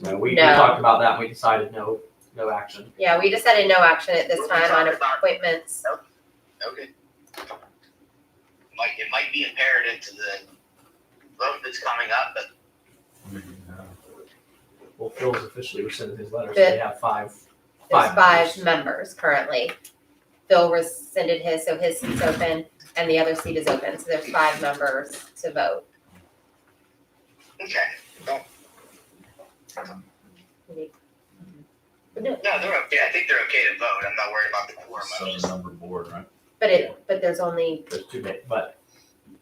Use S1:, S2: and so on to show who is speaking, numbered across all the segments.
S1: No, we, we
S2: No.
S1: talked about that, and we decided no, no action.
S2: Yeah, we decided no action at this time on appointments.
S3: Okay. Might, it might be imperative to the vote that's coming up, but
S1: Well, Phil's officially rescinded his letter, so they have five,
S2: There's
S1: five.
S2: five
S1: members.
S2: members currently. Phil rescinded his, so his seat's open and the other seat is open, so there's five members to vote.
S3: okay.
S2: No,
S3: No, they're okay. I think they're okay to vote. I'm not worried about the quorum. I'm just-
S4: Seven-member board, right?
S2: But it, but there's only,
S1: There's two, ma- but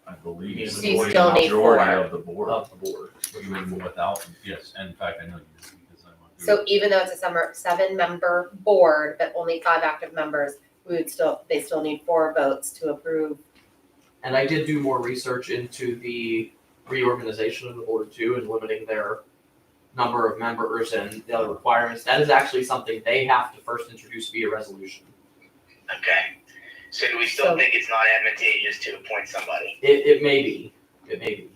S4: I believe.
S1: You
S4: the
S1: still
S4: majority- the
S2: need
S4: majority
S2: four. Oh.
S4: Of the board,
S1: of the board.
S4: even without, yes, and in fact, I know you did because I went through.
S2: so even though it's a summer, seven-member board, but only five active members, we would still, they still need four votes to approve.
S1: And I did do more research into the reorganization of the board too and limiting their number of members and the other requirements. That is actually something they have to first introduce via resolution.
S3: Okay. So do we still
S2: So-
S3: think it's not advantageous to appoint somebody?
S1: It, it may be, it may be.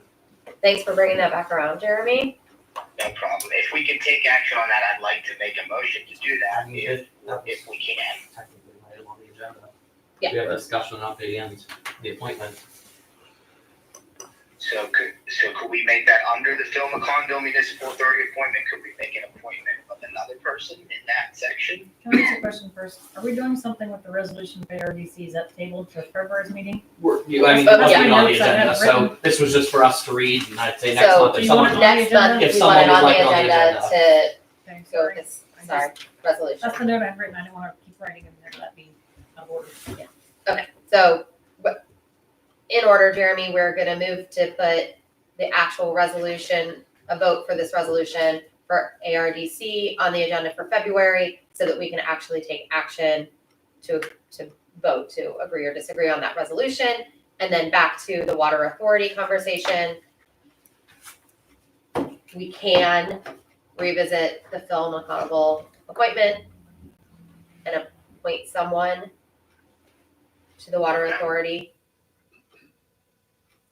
S2: Thanks for bringing that back around, Jeremy.
S3: No problem. If we can take action on that, I'd like to make a motion to do that if,
S1: That was
S3: if we can.
S1: Technically, right on the agenda.
S2: Yeah.
S1: We have a discussion on the end, the appointment.
S3: So could, so could we make that under the Phil McCondo Municipal Authority appointment? Could we make an appointment of another person in that section?
S5: Can I ask a question first? Are we doing something with the resolution for ARDC? Is that tabled for February's meeting?
S1: We're, you, I mean,
S2: Oh,
S1: it wasn't
S2: yeah.
S1: even on the
S5: Notes I have
S1: agenda, so
S5: written.
S1: this was just for us to read and I'd say next
S2: So,
S1: month
S5: do
S1: if
S5: you
S1: someone.
S5: wanna-
S2: Next month,
S1: If
S2: we want it
S1: someone
S2: on
S1: would
S2: the
S1: like it on the
S2: agenda to
S5: Okay,
S2: go with
S5: sorry.
S2: this, sorry, resolution.
S5: That's the note I've written. I didn't want to keep writing in there. That'd be out of order.
S2: So, but in order, Jeremy, we're gonna move to put the actual resolution, a vote for this resolution for ARDC on the agenda for February so that we can actually take action to, to vote to agree or disagree on that resolution. And then back to the water authority conversation. We can revisit the Phil McConville appointment and appoint someone to the water authority.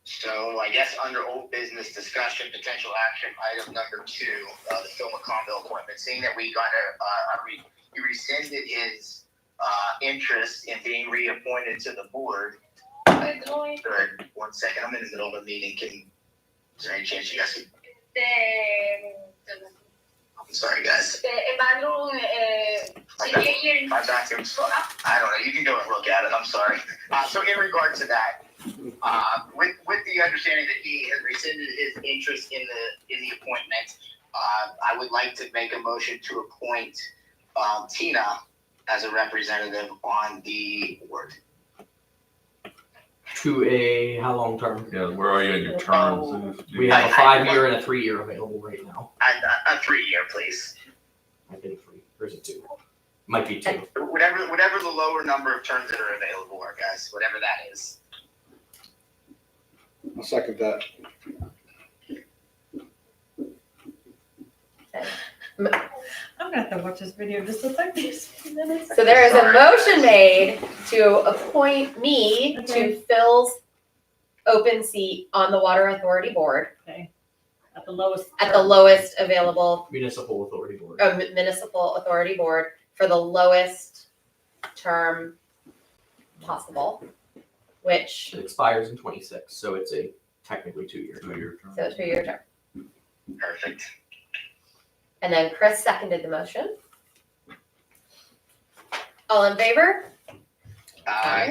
S3: So I guess under old business discussion, potential action, item number two, uh, the Phil McConville appointment, seeing that we got a, uh, a re- he rescinded his, uh, interest in being reappointed to the board. And, uh, one second, I'm in the middle of a meeting, can, is there any chance you guys can,
S6: Este,
S3: I'm sorry, guys,
S6: este, Evalu, eh, si quiere ir
S3: my bathroom's I don't know. You can go and look at it. I'm sorry. Uh, so in regard to that, uh, with with the understanding that he has rescinded his interest in the in the appointment, uh, I would like to make a motion to appoint uh, Tina as a representative on the board.
S1: To a, how long term?
S4: Yeah, where are you in your terms?
S3: Oh,
S4: Do
S1: We
S4: you-
S1: have a
S3: I- I-
S1: five-year and a three-year available right now.
S3: A, a, a three year, please.
S1: I think three, or is it two? Might be two.
S3: Whatever whatever the lower number of terms that are available are, guys. Whatever that is.
S7: I'll second that.
S5: I'm gonna have to watch this video just to thank these minutes.
S2: So there is a motion made to appoint me to
S5: Okay.
S2: Phil's open seat on the Water Authority Board
S5: Okay. At the lowest.
S2: at the lowest available
S1: Municipal Authority Board.
S2: uh, municipal authority board for the lowest term possible, which,
S1: It expires in twenty-six, so it's a technically two-year
S4: Do
S1: term.
S4: your terms.
S2: so two-year term.
S3: Perfect.
S2: And then Chris seconded the motion. All in favor?
S3: Uh,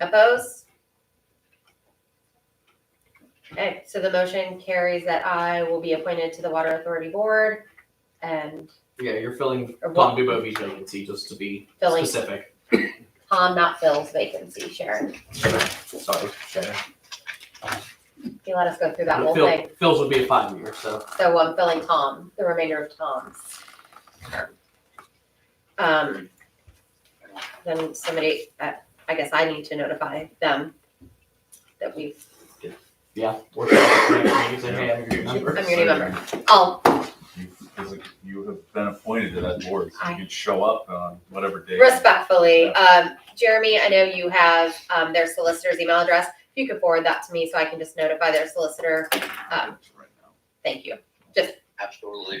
S2: Opposed? Okay, so the motion carries that I will be appointed to the Water Authority Board and
S1: Yeah, you're filling
S2: Or what-
S1: Tom Dubovi's vacancy, just to be
S2: filling
S1: specific.
S2: Tom, not Phil's vacancy, Sharon.
S1: Sorry, Sharon.
S2: You let us go through that
S1: But
S2: whole
S1: Phil-
S2: thing.
S1: Phil's would be a five-year, so.
S2: So I'm filling Tom, the remainder of Tom's term. Um, then somebody, uh, I guess I need to notify them that we've,
S1: Yeah. we're filling it right, you say, hey, I'm your new
S2: I'm
S1: member.
S2: your new member. Oh,
S4: You physically- You have been appointed to that board, so
S2: I-
S4: you can show up on whatever day.
S2: Respectfully, um, Jeremy, I know you have, um, their solicitor's email address. If you could forward that to me so I can just notify their solicitor. um,
S4: Right now.
S2: Thank you.
S3: absolutely.